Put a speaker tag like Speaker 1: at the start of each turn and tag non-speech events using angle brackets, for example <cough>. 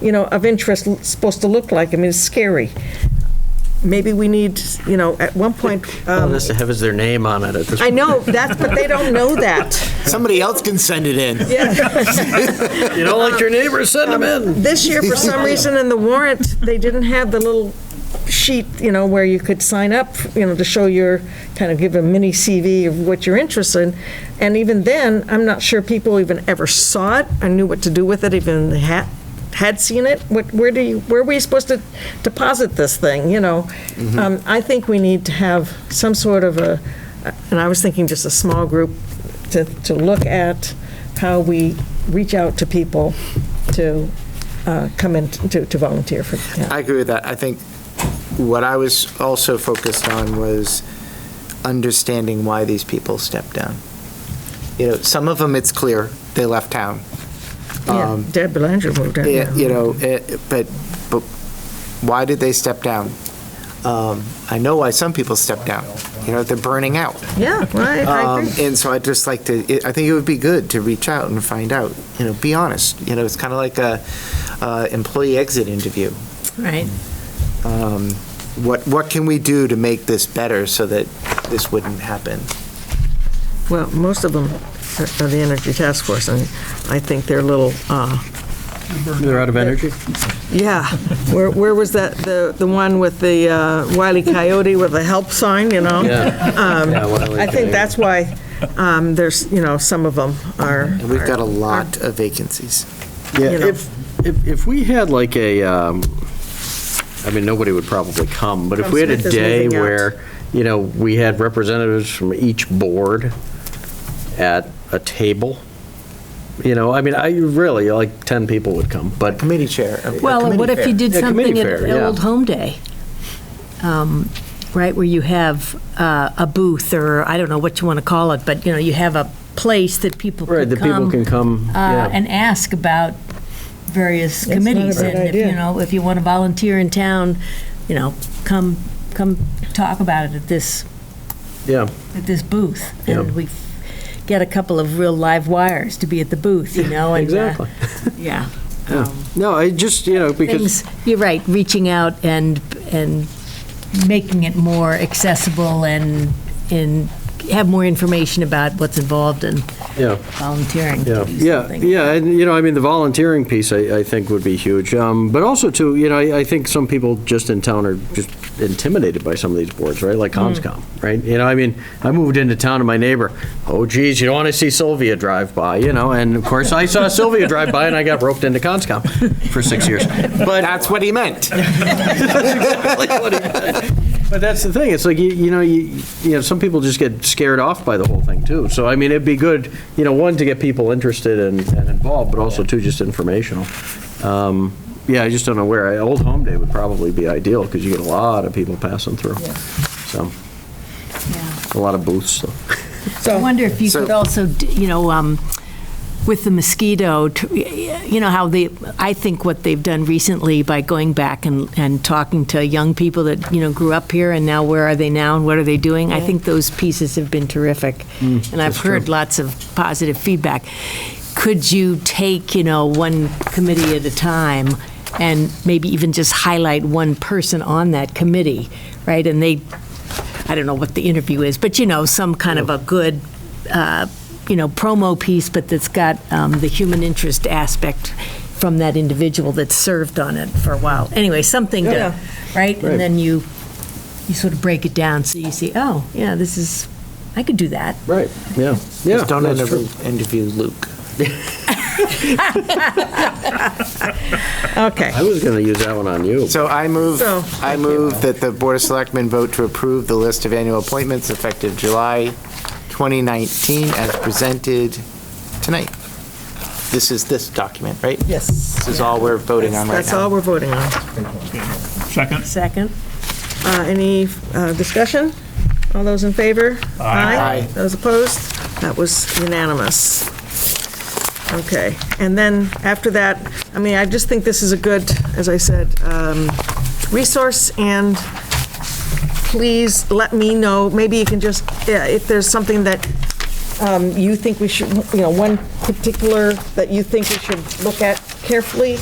Speaker 1: you know, of interest l- supposed to look like? I mean, it's scary. Maybe we need, you know, at one point, um,
Speaker 2: Unless it has their name on it at this
Speaker 1: I
Speaker 2: point.
Speaker 1: know, that's, but they don't know that. <laughs>
Speaker 3: Somebody else can send it in.
Speaker 2: You don't like your neighbor, send them in.
Speaker 1: This year, for some reason, in the warrant, they didn't have the little sheet, you know, where you could sign up, you know, to show your, kind of give a mini CV of what you're interested in. And even then, I'm not sure people even ever saw it, I knew what to do with it, even had, had seen it. What, where do you, where were we supposed to deposit this thing, you know? Um, I think we need to have some sort of a, and I was thinking just a small group to, to look at how we reach out to people to uh, come in to, to volunteer for the town.
Speaker 3: I agree with that. I think what I was also focused on was understanding why these people stepped down. You know, some of them, it's clear, they left town.
Speaker 1: Yeah,
Speaker 3: Um,
Speaker 1: Deb Belanger moved out.
Speaker 3: Yeah, you know, eh, but, but why did they step down? Um, I know why some people step down. You know, they're burning out.
Speaker 1: Yeah, right, I
Speaker 3: Um,
Speaker 1: agree.
Speaker 3: And so I'd just like to, it- I think it would be good to reach out and find out, you know, be honest. You know, it's kind of like a uh, employee exit interview.
Speaker 4: Right.
Speaker 3: Um, What, what can we do to make this better so that this wouldn't happen?
Speaker 1: Well, most of them are are the Energy Task Force, and I think they're little, uh,
Speaker 2: They're out of energy?
Speaker 1: yeah. Where, where was that, the, the one with the uh, Wile E. Coyote with the help sign, you know? I
Speaker 2: I
Speaker 1: think that's why um, there's, you know, some of them are,
Speaker 3: And we've got a lot of vacancies.
Speaker 1: you know.
Speaker 2: Yeah, if, if, if we had like a, um, I mean, nobody would probably come, but if
Speaker 1: Tom
Speaker 2: we had a
Speaker 1: Smith is
Speaker 2: day
Speaker 1: moving out.
Speaker 2: where, you know, we had representatives from each board at a table, you know, I mean, I, really, like 10 people would come, but,
Speaker 3: Committee chair. uh, a- a
Speaker 4: Well, and
Speaker 3: committee
Speaker 4: what if
Speaker 3: fair.
Speaker 4: you did
Speaker 2: Yeah, committee
Speaker 4: something
Speaker 2: fair,
Speaker 4: at
Speaker 2: yeah.
Speaker 4: Old Home Day? Um, Right, where you have uh, a booth, or I don't know what you want to call it, but, you know, you have a place that people can come.
Speaker 2: right, the people can come,
Speaker 4: uh,
Speaker 2: yeah.
Speaker 4: and ask about various
Speaker 1: not a
Speaker 4: committees.
Speaker 1: bad
Speaker 4: And if,
Speaker 1: idea.
Speaker 4: you know, if you want to volunteer in town, you know, come, come talk about it at this,
Speaker 2: Yeah,
Speaker 4: at this booth.
Speaker 2: Yeah.
Speaker 4: And we get a couple of real live wires to be at the booth, you know? and, uh,
Speaker 2: exactly.
Speaker 4: Yeah.
Speaker 2: Yeah.
Speaker 4: Um,
Speaker 2: No, I just, you know, because
Speaker 4: Things, you're right, reaching out and, and making it more accessible and, and have more information about what's involved in
Speaker 2: Yeah.
Speaker 4: volunteering
Speaker 2: Yeah,
Speaker 4: to do
Speaker 2: yeah,
Speaker 4: something.
Speaker 2: yeah, and, you know, I mean, the volunteering piece, I, I think, would be huge. Um, But also, too, you know, I, I think some people just in town are just intimidated by some of these boards, right? Like Conscom, right? You know, I mean, I moved into town and my neighbor, oh geez, you don't want to see Sylvia drive by, you know? And of course, I saw Sylvia drive by and I got roped into Conscom for six years. But
Speaker 3: That's what he meant.
Speaker 2: but that's the thing, it's like, you you know, you, you know, some people just get scared off by the whole thing, too. So, I mean, it'd be good, you know, one, to get people interested and and involved, but also, two, just informational. Um, Yeah, I just don't know where, I- Old Home Day would probably be ideal, because you get a lot of people passing through. So, a lot of booths, so.
Speaker 4: I wonder if you
Speaker 3: So-
Speaker 4: could also, d- you know, um, with the mosquito, t- you know, how they, I think what they've done recently by going back and, and talking to young people that, you know, grew up here and now where are they now and what are they doing? I think those pieces have been terrific. And I've heard lots of positive feedback. Could you take, you know, one committee at a time and maybe even just highlight one person on that committee, right? And they I don't know what the interview is, but you know, some kind of a good, uh, you know, promo piece, but that's got um, the human interest aspect from that individual that served on it for a while. Anyway, something
Speaker 1: Yeah.
Speaker 4: to, right?
Speaker 2: Right.
Speaker 4: And then you, you sort of break it down, so you see, oh, yeah, this is, I could do that.
Speaker 2: Right, yeah, yeah.
Speaker 3: Just don't
Speaker 2: that's true.
Speaker 3: interview interview Luke.
Speaker 1: Okay,
Speaker 2: I was going to use that one on you.
Speaker 3: So I move,
Speaker 1: So-
Speaker 3: I move that the Board of Selectmen vote to approve the list of annual appointments effective July 2019 as presented tonight. This is this document, right?
Speaker 1: yes.
Speaker 3: This is all we're voting on right
Speaker 1: That's all
Speaker 3: now.
Speaker 1: we're voting on.
Speaker 5: Second?
Speaker 4: Second?
Speaker 1: Uh, Any uh, discussion? All those in favor?
Speaker 3: Aye.
Speaker 1: Those opposed? That was unanimous. Okay, and then after that, I mean, I just think this is a good, as I said, um, resource, and please let me know, maybe you can just, yeah, if there's something that um, you think we should, you know, one particular that you think we should look at carefully,